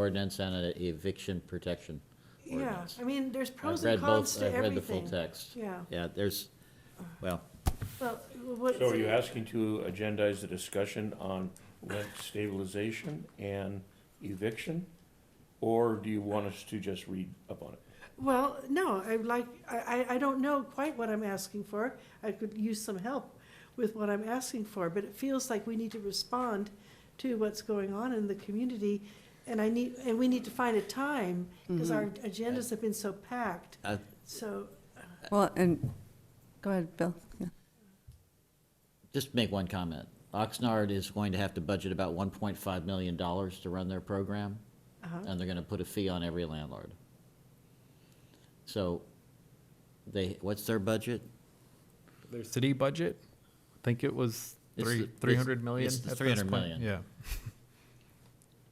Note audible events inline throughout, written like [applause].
ordinance and an eviction protection Yeah, ordinance. I mean, there's pros I've and read cons both. to I've read the full everything. text. Yeah. Yeah, there's, well, Well, what- So are you asking to agendize the discussion on rent stabilization and eviction? Or do you want us to just read up on it? Well, no, I'm like, I, I- I don't know quite what I'm asking for. I could use some help with what I'm asking for, but it feels like we need to respond to what's going on in the community. And I need, and we need to find a time, because our Mm-hmm. agendas have been so packed, I- so, Well, and, go ahead, Bill. Yeah. just make one comment. Oxnard is going to have to budget about one point five million dollars to run their program, uh-huh, and they're gonna put a fee on every landlord. So, they, what's their budget? Their city budget, I think it was It's the- three, it's- three hundred million. it's the at this 300 point. million. Yeah.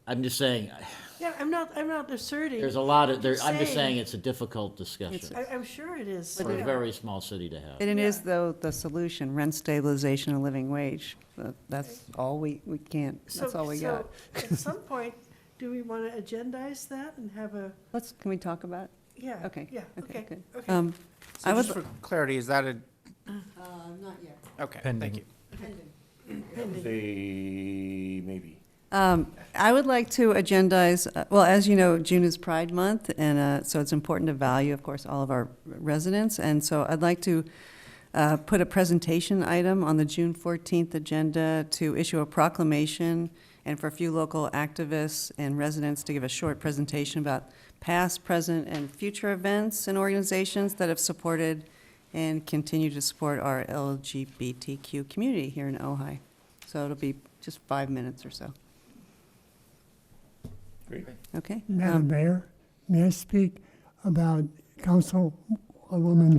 I'm just saying, yeah, I'm not, I'm not asserting. there's a lot of, there, I'm just Saying- saying it's a difficult discussion I, I'm sure it is. for a yeah. very small city to have. And it is, Yeah. though, the solution, rent stabilization and living wage. That- That's all we, we can't, So- that's all we so got. At some point, do we want to agendize that and have a, Let's, can we talk about? yeah, Okay, yeah, okay, okay, good. okay. Um, I So would just l- for clarity, is that a, Uh, Not yet. okay, Pending. thank you. They, maybe. Um, I would like to agendize, uh, well, as you know, June is Pride Month, and uh, so it's important to value, of course, all of our residents. And so I'd like to uh, put a presentation item on the June 14th agenda to issue a proclamation and for a few local activists and residents to give a short presentation about past, present, and future events and organizations that have supported and continue to support our LGBTQ community here in Ojai. So it'll be just five minutes or so. Great. Okay. Madam um, Mayor, may I speak about Councilwoman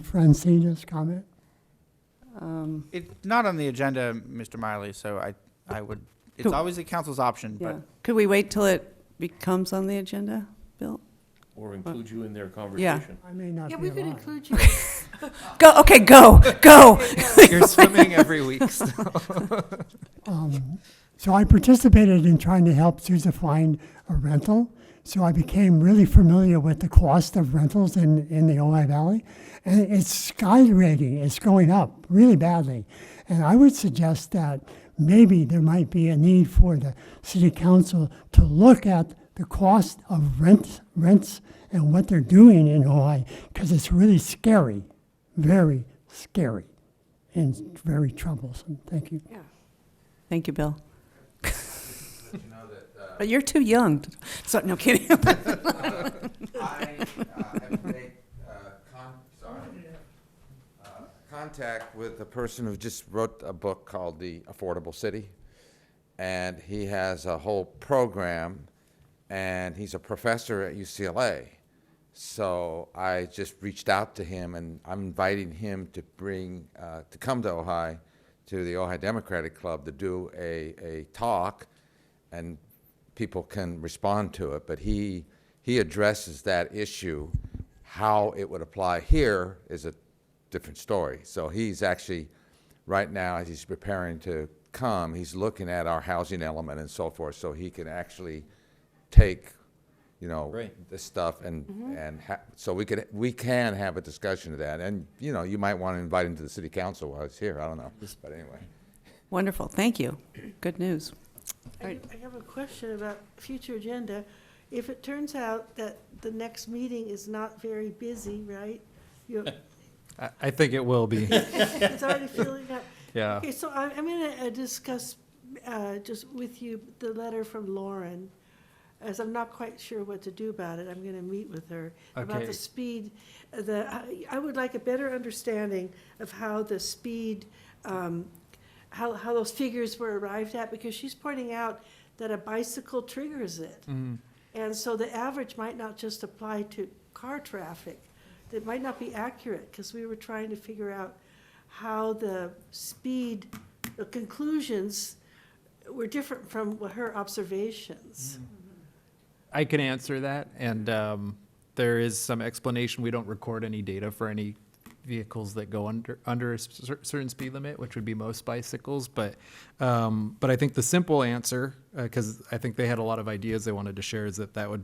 Francina's comment? um, It's not on the agenda, Mr. Miley, so I, I would, it's Cool. always the council's option, yeah. but Could we wait till it becomes on the agenda, Bill? Or include you in their conversation. I may not be Yeah, alive. we could include you. Go, okay, go, [laughs] go. You're swimming every [laughs] week. so- Um, So I participated in trying to help Sousa find a rental. So I became really familiar with the cost of rentals in, in the Ojai Valley. And it's skyrocketing, it's going up really badly. And I would suggest that maybe there might be a need for the city council to look at the cost of rents, rents and what they're doing in Ojai, because it's really scary, very scary, and very troublesome. Thank you. Yeah. Thank you, Bill. But you're too young. to- So, no kidding. [laughs] I uh, have made uh, con- sorry, uh, contact with a person who just wrote a book called The Affordable City. And he has a whole program, and he's a professor at UCLA. So I just reached out to him, and I'm inviting him to bring, uh, to come to Ojai, to the Ojai Democratic Club, to do a, a talk, and people can respond to it. But he, he addresses that issue. How it would apply here is a different story. So he's actually, right now, as he's preparing to come, he's looking at our housing element and so forth, so he can actually take, you know, Right. this stuff and, and ha- so we could, we can have a discussion of that. And, you know, you might want to invite him to the city council while he's here, I don't know, but anyway. Wonderful, thank you. Good news. I do- I have a question about future agenda. If it turns out that the next meeting is not very busy, right? You- I, I think it [laughs] will be. It's already filling up. Yeah. Okay, so I- I'm going to discuss uh, just with you the letter from Lauren, as I'm not quite sure what to do about it. I'm going to meet with her about Okay. the speed, uh, the, I- I would like a better understanding of how the speed, um, how, how those figures were arrived at, because she's pointing out that a bicycle triggers it. And so the average might not just apply to car traffic. That might not be accurate, because we were trying to figure out how the speed, the conclusions were different from her observations. I can answer that, and um, there is some explanation. We don't record any data for any vehicles that go under under a cer- certain speed limit, which would be most bicycles. But uh, um, but I think the simple answer, because I think they had a lot of ideas they wanted to share, is that that would be.